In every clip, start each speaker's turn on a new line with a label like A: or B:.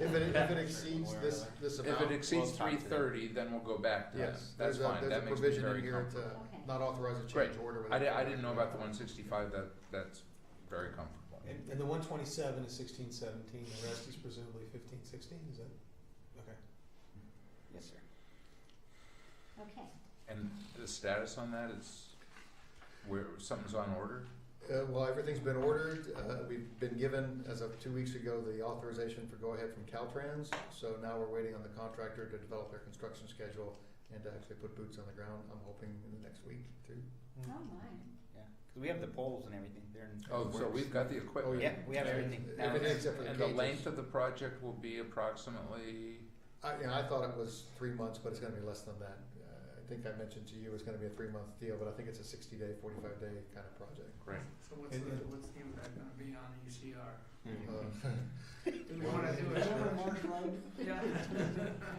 A: If it, if it exceeds this, this
B: If
A: amount,
B: it exceeds
C: Well,
B: three
C: it's not
B: thirty, then we'll go back to them.
A: yes,
B: That's
A: there's a,
B: fine,
A: there's a
B: that makes me
A: provision in
B: very
A: here to
B: comfortable.
D: Okay.
A: not authorize a
B: Great.
A: change order
B: I
A: without.
B: di- I didn't know about the one sixty-five, that, that's very comfortable.
E: And, and the one twenty-seven is sixteen seventeen, the rest is presumably fifteen sixteen, is that, okay.
C: Yes, sir.
D: Okay,
B: And the status on that is where something's on order?
A: Uh, well, everything's been ordered, uh, we've been given, as of two weeks ago, the authorization for go-ahead from Caltrans, so now we're waiting on the contractor to develop their construction schedule and to actually put boots on the ground, I'm hoping in the next week too.
D: oh my,
C: Yeah, because we have the poles and everything. They're in.
B: Oh, so
A: Works.
B: we've got the
A: Oh,
B: equipment.
C: Yeah, we have
A: Yeah.
C: everything. Now
A: Everything
C: it's-
A: except for the
B: And the
A: cages.
B: length of the project will be approximately,
A: I, you know, I thought it was three months, but it's gonna be less than that. Uh, I think I mentioned to you, it's gonna be a three-month deal, but I think it's a sixty-day, forty-five day kind of project.
B: great,
F: So what's
E: And-
F: the,
E: and-
F: what's the impact gonna be on ECR?
C: Mhm.
A: Uh,
F: Do we wanna do it? Yeah.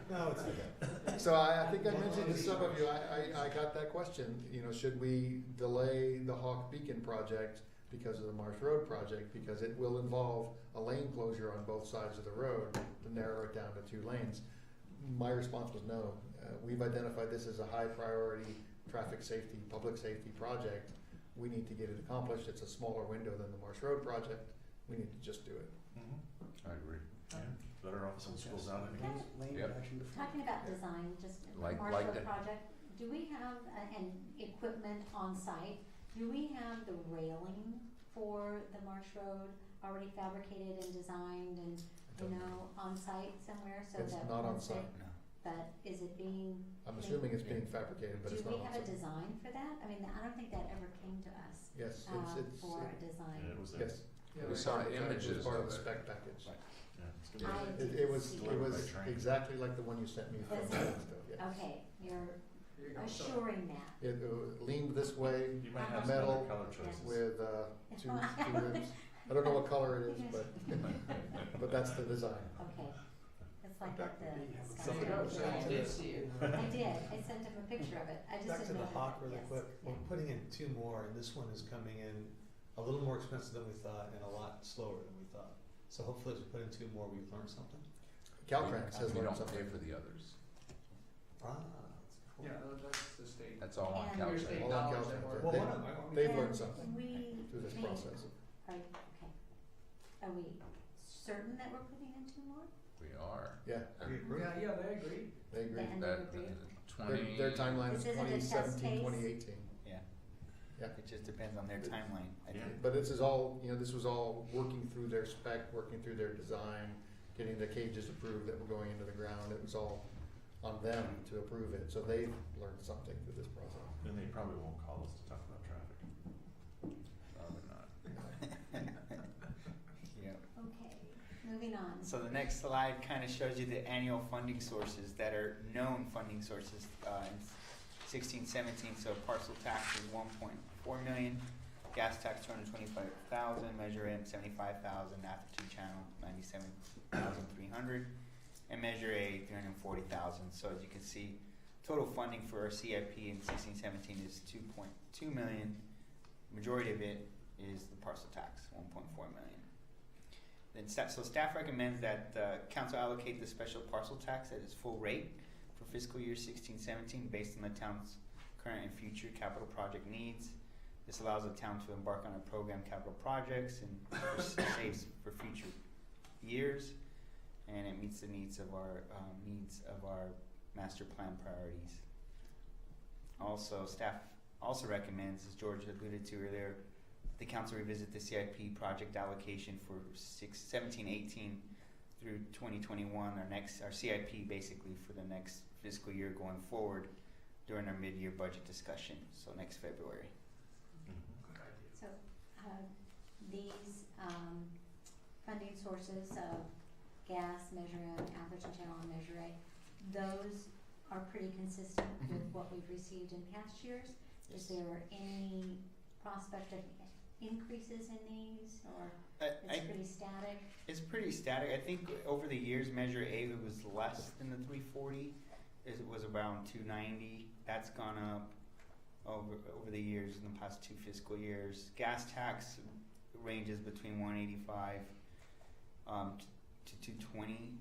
E: No, it's okay.
A: So I, I think I mentioned to some of you, I, I, I got that question, you know, should we delay the Hawk Beacon project because of the Marsh Road project, because it will involve a lane closure on both sides of the road to narrow it down to two lanes? My response was no. Uh, we've identified this as a high priority traffic safety, public safety project. We need to get it accomplished. It's a smaller window than the Marsh Road project. We need to just do it.
B: I agree.
G: Better off some schools out of it.
D: Okay.
C: Lane
B: Yep.
C: of action before.
D: talking about design, just a
B: Like-
D: Marshall
B: like that.
D: project, do we have, uh, and equipment on site, do we have the railing for the Marsh Road already fabricated and designed and, you know, on site somewhere, so that
A: It's
D: once it?
A: not on site.
C: No.
D: But is it being
A: I'm assuming it's being fabricated, but
D: Do
A: it's not
D: we
A: on
D: have a
A: site.
D: design for that? I mean, I don't think that ever came to us,
A: Yes,
D: uh,
A: it's, it's,
D: for a
G: Yeah,
D: design.
G: it was a-
A: yes.
F: Yeah,
B: We
F: right.
B: saw
A: It was
B: images
A: Part
B: of
A: of the
B: it.
A: spec package.
G: yeah, it's gonna be-
D: I
A: It, it was,
D: didn't see
A: it was
B: Right.
A: exactly like the one you sent me from
D: That's
A: Rolling
D: it.
A: Stone, yeah.
D: Okay, you're
F: Here you go. So-
D: assuring that.
A: It uh, leaned this way
G: You might have some
A: Metal
G: other color choices.
A: with, uh, two,
D: No, I
A: two
D: don't-
A: ribs. I don't know what color it is,
D: Yes.
A: but, but that's the design.
D: Okay, it's like at the.
F: So you
D: skyscraper.
F: go. So you did see it.
D: I did, I sent him a picture of it, I just
E: Back to
D: didn't know.
E: the hawk
D: that-
E: really
D: yes,
E: quick,
D: yeah.
E: we're putting in two more, and this one is coming in a little more expensive than we thought and a lot slower than we thought. So hopefully as we put in two more, we've learned something.
A: Caltrans has
B: We
A: learned
B: don't pay
A: something.
B: for the others,
E: Ah,
F: Yeah, tha- that's the state.
B: that's all on
D: And-
F: Your
B: Caltrans.
F: state
A: All on
F: dollars
A: Caltrans.
F: that work.
E: Well,
A: They-
E: one of them, I-
A: They've
D: And
A: learned something
D: We.
A: through this
D: think-
A: process.
D: Are, okay. Are we certain that we're putting in two more?
B: We are.
A: Yeah,
E: we agree.
F: Yeah, yeah, they agree.
A: they agree.
D: And
B: That,
D: they agree?
A: Their,
B: twenty.
A: their timeline is
D: This isn't a
A: twenty
D: test
A: seventeen,
D: case.
A: twenty eighteen.
C: Yeah.
A: Yeah.
C: It just depends on their timeline. I
G: Yeah.
C: think.
A: But this is all, you know, this was all working through their spec, working through their design, getting the cages approved that were going into the ground. It was all on them to approve it, so they've learned something through this process.
G: Then they probably won't call us to talk about traffic.
B: Probably not.
C: Yeah.
D: Okay, moving on.
C: So the next slide kind of shows you the annual funding sources that are known funding sources uh, in sixteen seventeen. So parcel tax is one point four million, gas tax two hundred twenty-five thousand, Measure M seventy-five thousand, Napa two channel ninety-seven thousand three hundred, and Measure A three hundred forty thousand. So as you can see, total funding for our CIP in sixteen seventeen is two point two million. Majority of it is the parcel tax, one point four million. Then staff, so staff recommends that uh, council allocate the special parcel tax at its full rate for fiscal year sixteen seventeen based on the town's current and future capital project needs. This allows the town to embark on a program capital projects and saves for future years. And it meets the needs of our, um, needs of our master plan priorities. Also, staff also recommends, as George alluded to earlier, the council revisit the CIP project allocation for six, seventeen, eighteen through twenty twenty-one, our next, our CIP basically for the next fiscal year going forward during our mid-year budget discussion, so next February.
G: Mm.
F: Good idea.
D: So, uh, these, um, funding sources of gas, Measure M, Atherton Channel, and Measure A, those are pretty consistent with what we've received in past years. Is there any prospect of increases in these, or
C: I, I,
D: it's pretty static?
C: it's pretty static, I think over the years, Measure A was less than the three forty, it was around two ninety, that's gone up over, over the years, in the past two fiscal years. Gas tax ranges between one eighty-five um, t- to two twenty